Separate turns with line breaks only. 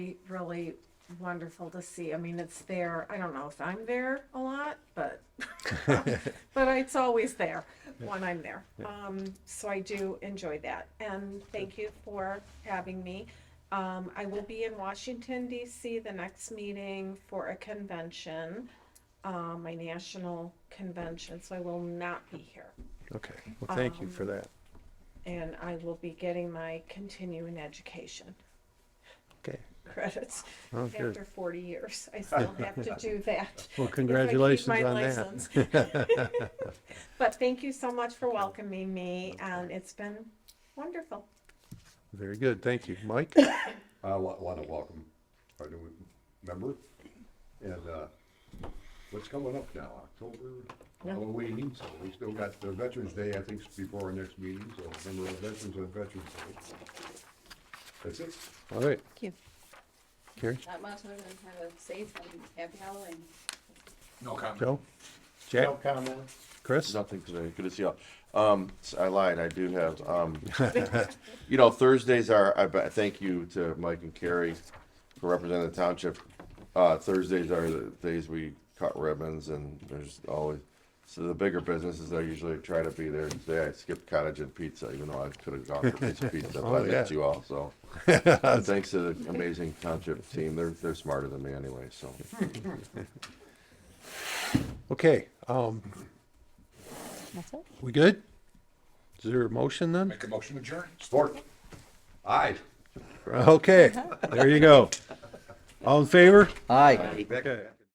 be really wonderful to see. I mean, it's there. I don't know if I'm there a lot, but but it's always there when I'm there. Um, so I do enjoy that, and thank you for having me. Um, I will be in Washington D.C. the next meeting for a convention, uh, my national convention. So I will not be here,
Okay, well, thank you
Um,
for that.
and I will be getting my continuing education.
Okay,
credits
Oh, good.
after 40 years. I still have to do that.
well,
congratulations
congratulations
my on
on
that.
that.
But thank you so much for welcoming me, and it's been wonderful.
Very good, thank you. Mike?
I want to welcome our new member. And uh, what's coming up now, October, Halloween, so we still got the Veterans Day, I think, is before our next meeting, so remember our veterans on Veterans Day. That's it.
All right,
Thank you.
Carrie,
Not much other than have a safe and happy Halloween.
No comment.
Joe, Jack,
No comment.
Chris?
Nothing today. Good to see you. all. Um, s- I lied. I do have, um, you know, Thursdays are, I, bet- thank you to Mike and Carrie for representing the township. Uh, Thursdays are the days we cut ribbons and there's always, so the bigger businesses, I usually try to be there. Today I skipped cottage and pizza, even though I could have gone for pizza, pizza,
Oh,
but I
yeah.
met you all, so. But Thanks to the amazing township team. They're, they're smarter than me anyway, so.
Okay, um,
That's it.
we good? Is there a motion then?
Make a motion to adjourn. Support. Aye.
Okay, there you go. All in favor?
Aye.
Okay.